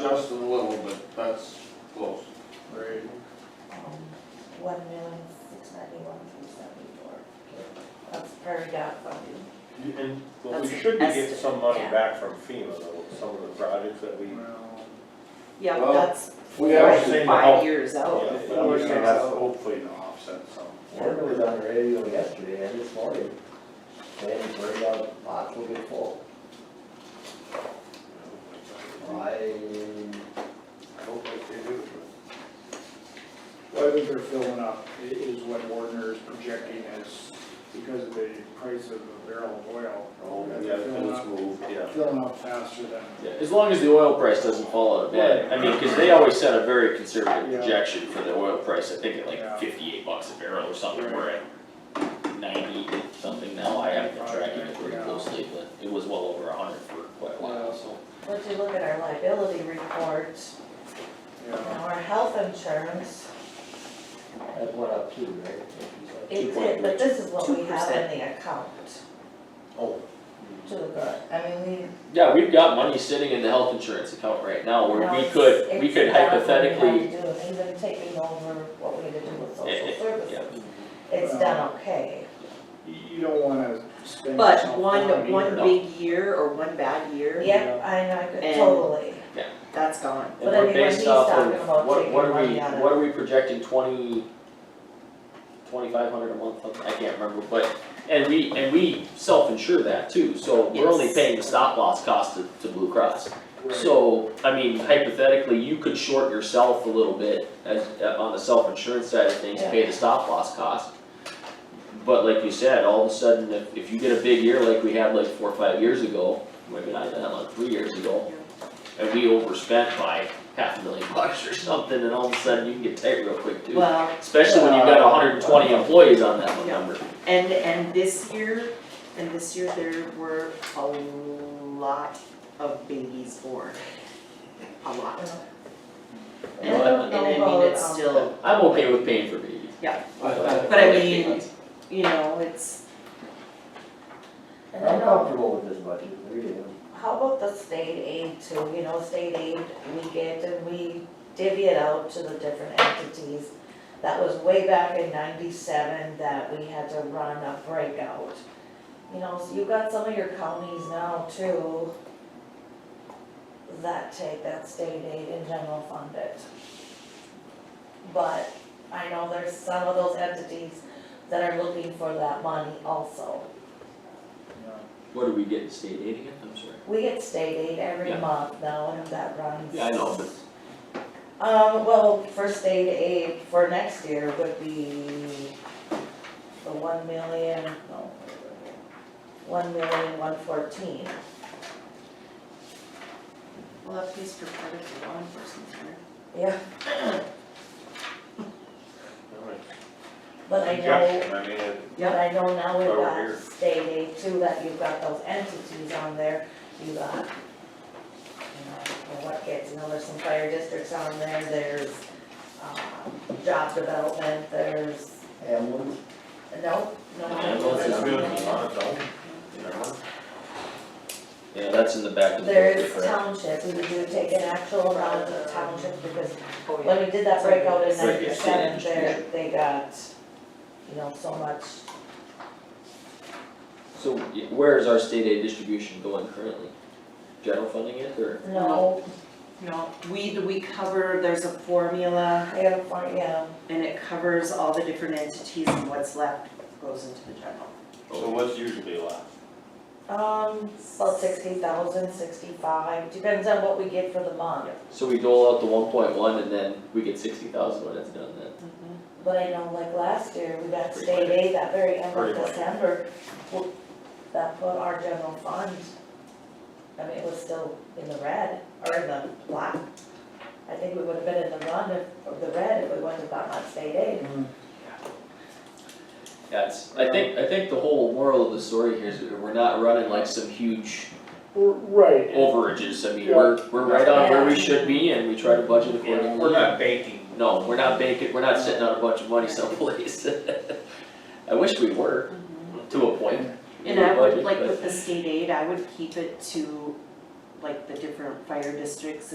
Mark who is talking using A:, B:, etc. A: just a little bit, that's close.
B: Right.
C: Um, One million, six ninety-one, three seventy-four. That's prairie dog funding.
D: You- And, well, we
C: That's
D: should be getting
C: estimate,
D: some money
C: yeah.
D: back from FEMA though, some of the projects that we.
B: Well,
C: Yeah,
A: Well,
C: but that's
A: We
D: are
A: actually,
D: saying to help.
C: five years out.
D: Yeah,
A: we were saying
D: that's
A: so.
D: hopefully to offset some.
E: Morgan was on the radio yesterday and this morning, saying it's very out, lots will get full. I,
D: I hope like they do, but
B: I think they're filling up, i- is what Warner is projecting as, because of the price of a barrel of oil.
D: Oh,
B: that
D: yeah,
B: they're
D: if
B: filling
D: it's
B: up-
D: moved, yeah.
B: Filling up faster than,
F: Yeah, as long as the oil price doesn't fall out of bed, I mean, cause they always set a very conservative
B: Yeah.
F: projection for the oil price, I think at
B: Yeah.
F: like fifty-eight bucks a barrel or something, we're at ninety something now, I haven't been tracking it very
B: Yeah.
F: closely, but it was well over a hundred for quite a while, so.
C: But if you look at our liability report, and
B: yeah.
C: our health insurance,
E: that went up too, right?
C: it did, but this is what we have in the account
F: Oh.
C: to the good. I mean, we
F: Yeah, we've got money sitting in the health insurance account right now where
C: No,
F: we
C: it's-
F: could, we
C: it's
F: could
C: about what we had to
F: hypothetically,
C: do, and Even taking over what we had to do with
F: Eh,
C: social
F: eh,
C: services, it's done okay.
B: You you don't wanna spend.
G: But
B: yourself
G: one,
B: down
G: one
B: either.
F: No.
G: big year or one bad year,
C: Yep, I know,
G: And-
C: totally.
G: that's gone.
F: and
C: But I
F: we're
C: mean, when
F: based
C: he's
F: off
C: talking
F: of,
C: about
F: what,
C: taking
F: what are we,
C: money out of-
F: what are we projecting, twenty, twenty-five hundred a month, something, I can't remember, but, and we, and we self-insure that too, so we're only
G: Yes.
F: paying the stop loss cost to, to Blue Cross.
B: Right.
F: So, I mean, hypothetically, you could short yourself a little bit as, uh, on the self-insurance side of things, pay the stop loss cost. But like you said, all of a sudden, if, if you get a big year like we had like four or five years ago, maybe not that long, three years ago, and we overspent by half a million bucks or something, and all of a sudden you can get tight real quick too.
G: Well,
F: Especially when you've got hundred and twenty employees on that one
G: Yeah.
F: number.
G: and, and this year, and this year there were a lot of babies born. A lot. And,
F: Well, I-
G: and I mean, it's
C: um,
G: still,
F: I'm okay with paying for babies.
G: but I mean, you know, it's,
C: And I
E: I'm
C: know,
E: comfortable with this budget, really, am.
C: how about the state aid too, you know, state aid, we get and we divvy it out to the different entities. That was way back in ninety-seven that we had to run a breakout. You know, so you've got some of your counties now too that take that state aid and general fund it. But I know there's some of those entities that are looking for that money also.
B: Yeah.
F: What do we get in state aid again? I'm sorry.
C: We get state aid every
F: Yeah.
C: month now, and that runs.
F: Yeah, I know, but
C: Um, well, for state aid for next year would be the one million, no. One million, one fourteen,
G: well, that pays for part of the law enforcement here.
C: yeah,
D: Alright.
C: but I know,
D: Conjunction, I mean, it-
C: but I know now we've
D: Over here.
C: got state aid too, that you've got those entities on there, you got. You know, and what gets, you know, there's some fire districts on there, there's, um, job development, there's
E: Ambulance,
C: No, no.
F: Yeah, well, it's just
D: it's on its own, you know?
F: yeah, that's in the back of the.
C: There
F: budget,
C: is
F: correct?
C: township, we do take an actual round of township because when we did that breakout in
F: Right, yeah,
C: ninety-seven,
F: state
C: there,
F: distribution.
C: they got, you know, so much.
F: So y- where is our state aid distribution going currently? General funding it or?
C: No,
G: No, we, we cover, there's a formula
C: I have, a- yeah,
G: and it covers all the different entities and what's left goes into the general.
D: So what's usually left?
C: um, about sixty thousand, sixty-five, depends on what we get for the month.
F: So we dole out the one point one and then we get sixty thousand when it's done then?
C: But I know like last year, we got state aid that very end of
D: Pretty much.
C: December, w- that put our general fund, I mean, it was still in the red, or in the black. I think we would have been in the run if, of the red if we wouldn't have gotten that state aid.
F: That's, I think, I think the whole moral of the story here is that we're not running like some huge
B: Right, and-
F: overages, I mean, we're, we're right on where we should be and we try to budget accordingly.
D: We're not banking
F: No, we're not banking, we're not sitting on a bunch of money someplace. I wish we were, to a point.
G: And I would,
F: Budget,
G: like
F: but-
G: with the state aid, I would keep it to like the different fire districts